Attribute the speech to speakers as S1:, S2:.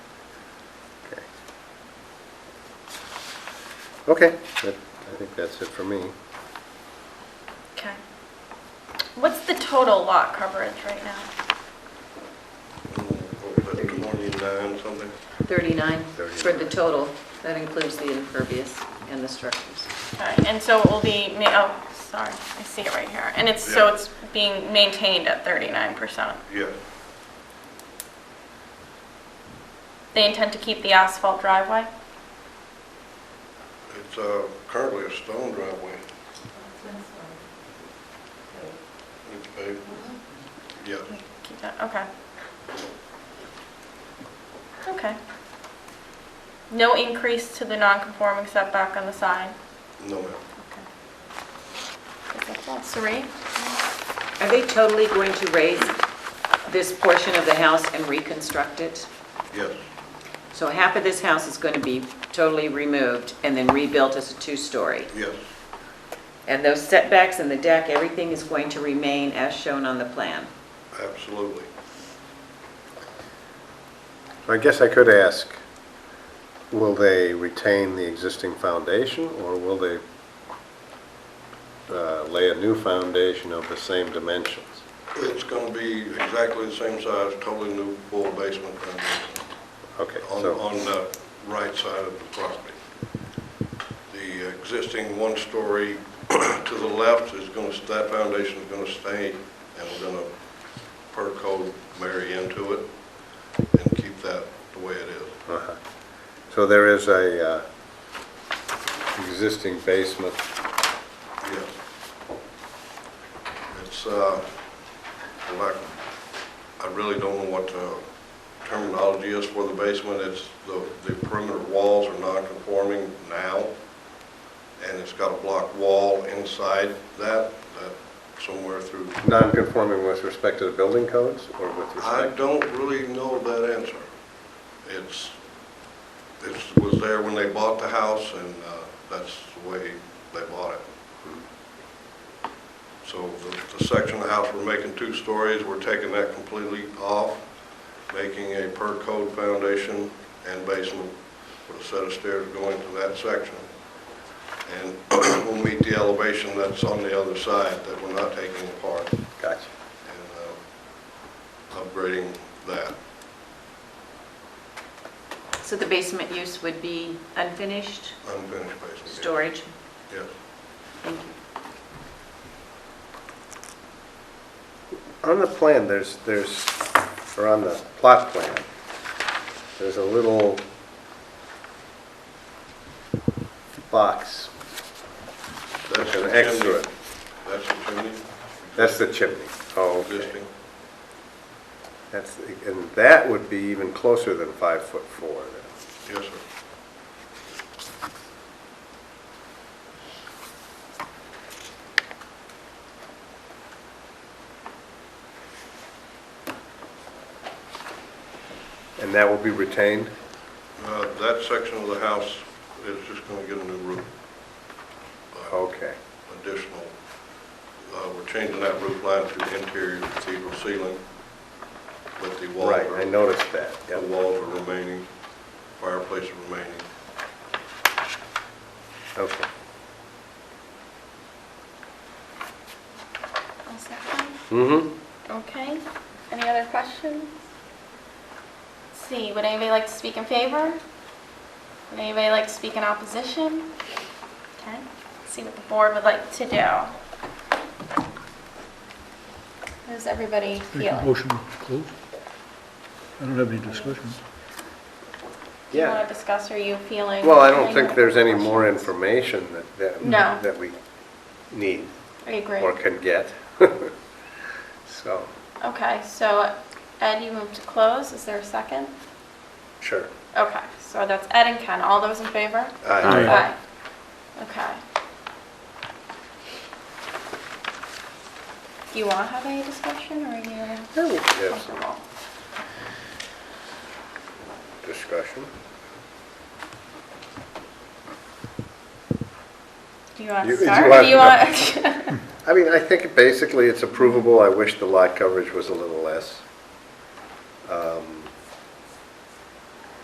S1: Okay, that- I think that's it for me.
S2: Okay. What's the total lot coverage right now?
S3: Forty-nine something.
S4: 39 for the
S1: 39.
S4: total. That includes the impervious and the structures.
S2: Alright, And so it will be, ma- oh, sorry, I see it right here. And it's, so
S3: Yeah.
S2: it's being maintained at 39%.
S3: Yeah,
S2: They intend to keep the asphalt driveway?
S3: it's uh, currently a stone driveway. It's paved. Yeah,
S2: Keep that, okay. Okay. No increase to the non-conforming setback on the side?
S3: no, ma'am.
S2: Suri?
S4: Are they totally going to raise this portion of the house and reconstruct it?
S3: yes,
S4: So half of this house is going to be totally removed and then rebuilt as a two-story.
S3: yes,
S4: And those setbacks and the deck, everything is going to remain as shown on the plan.
S3: absolutely.
S1: I guess I could ask, will they retain the existing foundation, or will they uh, lay a new foundation of the same dimensions?
S3: It's going to be exactly the same size, totally new full basement foundation
S1: Okay,
S3: on,
S1: so,
S3: on the right side of the property. The existing one-story to the left is going to, that foundation is going to stay, and we're going to, per code, marry into it and keep that the way it is.
S1: uh-huh. so there is a uh, existing basement,
S3: Yes. It's, uh, like, I really don't know what the terminology is for the basement. It's, the the perimeter walls are non-conforming now, and it's got a block wall inside that, that somewhere through.
S1: non-conforming with respect to the building codes, or with
S3: I
S1: respect?
S3: don't really know that answer. It's, it was there when they bought the house, and uh, that's the way they bought it. So the- the section of the house we're making two stories, we're taking that completely off, making a per code foundation and basement with a set of stairs going to that section. And we'll meet the elevation that's on the other side that we're not taking apart
S1: Gotcha.
S3: and uh, upgrading that.
S4: So the basement use would be unfinished
S3: unfinished basement. yes.
S4: storage?
S3: Yes.
S4: Thank you.
S1: On the plan, there's, there's, or on the plot plan, there's a little box,
S3: That's
S1: an
S3: the
S1: extra.
S3: chimney. That's the chimney,
S1: That's the chimney. Oh, okay.
S3: existing.
S1: That's, and that would be even closer than five foot four. then.
S3: Yes, sir.
S1: And that will be retained?
S3: Uh, That section of the house is just going to get a new roof. Uh,
S1: Okay,
S3: Additional, uh, we're changing that roof line to interior cathedral ceiling, but the walls
S1: right,
S3: are...
S1: I noticed that.
S3: The
S1: Yep.
S3: walls are remaining, fireplace is remaining.
S1: Okay. Mm-hmm.
S2: Okay, any other questions? Let's See, would anybody like to speak in favor? Would anybody like to speak in opposition? Okay, see what the board would like to do. How's everybody
S5: Make a
S2: feeling?
S5: motion to close. I don't have any discussion.
S2: Do you want
S1: Yeah.
S2: to discuss, are you feeling?
S1: Well, I don't think there's any more information that, that.
S2: No.
S1: That we need
S2: I agree.
S1: or can get. So,
S2: Okay, so Ed, you moved to close, is there a second?
S1: sure.
S2: Okay, so that's Ed and Ken, all those in favor?
S1: Aye.
S2: Aye. Okay. Do you want to have any discussion, or are you
S1: Yeah, we can have some
S2: comfortable?
S1: discussion.
S2: Do you want
S1: You-
S2: to
S1: you
S2: start? or Do you
S1: want-
S2: want?
S1: I mean, I think basically it's approvable. I wish the lot coverage was a little